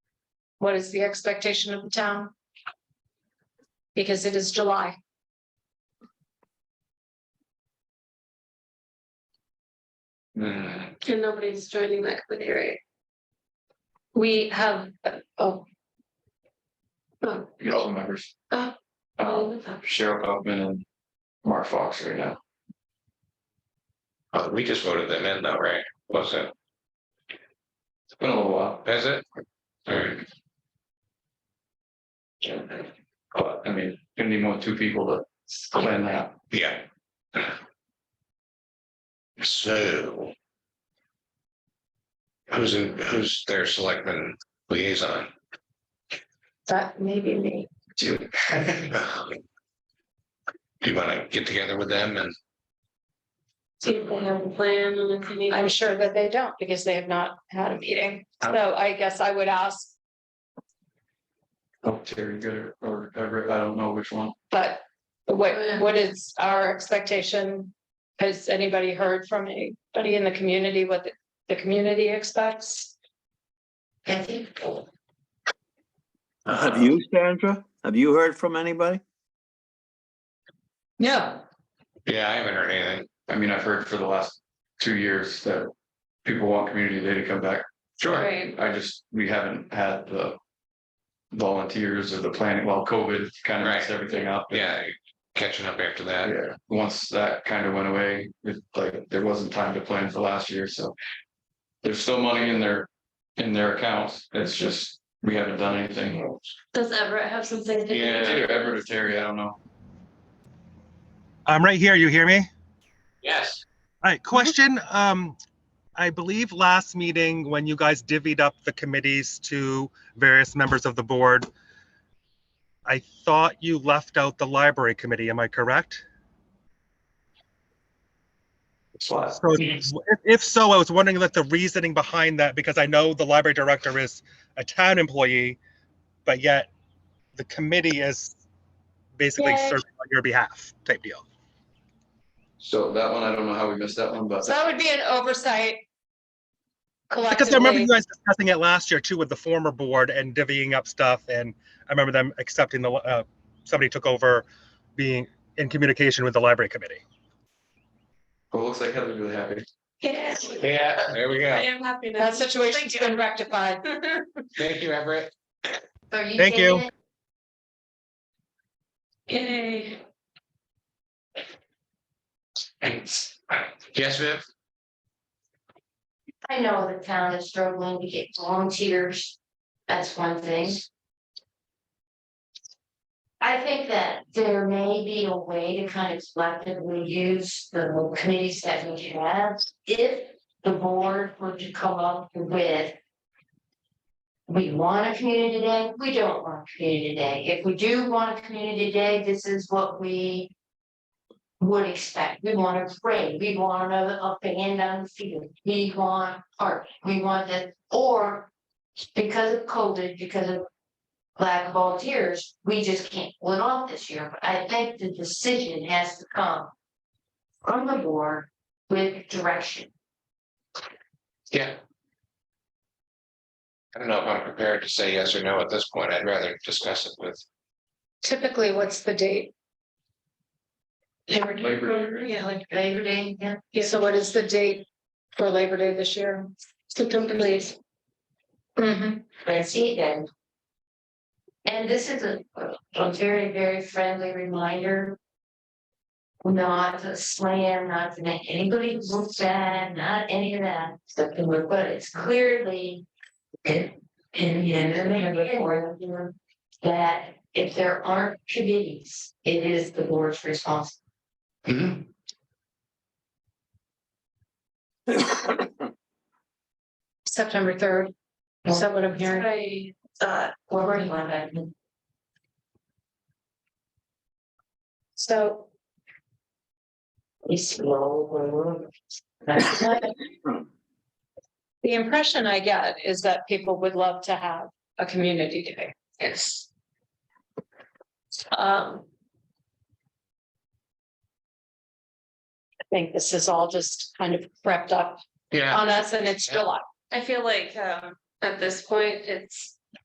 What is the expectation of the town? Because it is July. And nobody's joining that committee, right? We have, uh, oh, Oh, You got all the members. Oh. Um, all of them. Cheryl Kaufman and Mark Fox right now. Uh, we just voted them in though, right? Was it, It's been a little while. is it? Alright, But I mean, gonna need more than two people to plan that. yeah. So. Who's in, who's their selectman liaison? that may be me. too. Do you wanna get together with them and, See if they have a plan and if they need. I'm sure that they don't because they have not had a meeting. Um, So I guess I would ask, Oh, Terry Gooder or Everett, I don't know which one. but Oh, yeah. what, what is our expectation? Has anybody heard from anybody in the community what the, the community expects? I think. Have you, Sandra? Have you heard from anybody? No. yeah, I haven't heard anything. I mean, I've heard for the last two years that people want community day to come back. Sure, Right, I just, we haven't had the volunteers or the planning, well, COVID kind of messed Right. everything up. yeah, catching up after that, Yeah, once that kind of went away, it like, there wasn't time to plan for last year, so. There's still money in their, in their accounts, it's just, we haven't done anything. does Everett have something? to It's do? Either Everett or Terry, I don't know. I'm right here. You hear me? All yes, right. Question. Um, I believe last meeting when you guys divvied up the committees to various members of the board, I thought you left out the library committee. Am I correct? It's last. So if if so, I was wondering like the reasoning behind that because I know the library director is a town employee, but yet the committee is basically Yay. serving on your behalf type deal. So that one, I don't know how we missed that one, but So that would be an oversight. Because I remember Collectively, you guys discussing it last year too with the former board and divvying up stuff, and I remember them accepting the, uh, somebody took over being in communication with the library committee. well, it looks like Heather's really happy. Yes, yeah, there we I go. am happy now. that situation's been rectified. Thank you, Everett. Thank you. Yay. Yes, Viv? I know the town is struggling to get volunteers. That's one thing. I think that there may be a way to kind of selectively use the committees that we have. If the board were to come up with. We want a community day, we don't want a community day. If we do want a community day, this is what we. Would expect, we want a parade, we want another up and in on the field, we want art, we want this, or. Because of COVID, because of lack of volunteers, we just can't pull it off this year, but I think the decision has to come. From the board with direction. Yeah. I don't know if I'm prepared to say yes or no at this point. I'd rather discuss it with, Typically, what's the date? Labor Day. Labor Yeah, like Labor Day, yeah. So what is the date for Labor Day this year? September, please. Mhm. Francie then. And this is a, a very, very friendly reminder. Not to slam, not to make anybody look bad, not any of that, stuff, but it's clearly. In, in the end, in the report, you know, that if there aren't committees, it is the board's responsibility. September third. Is that what I'm hearing? Right. Uh, or we're going back. So We slow, we're- the impression I get is that people would love to have a community day. Yes. Um. I think this is all just kind of prepped up yeah, on us and it's July. I feel like um at this point, it's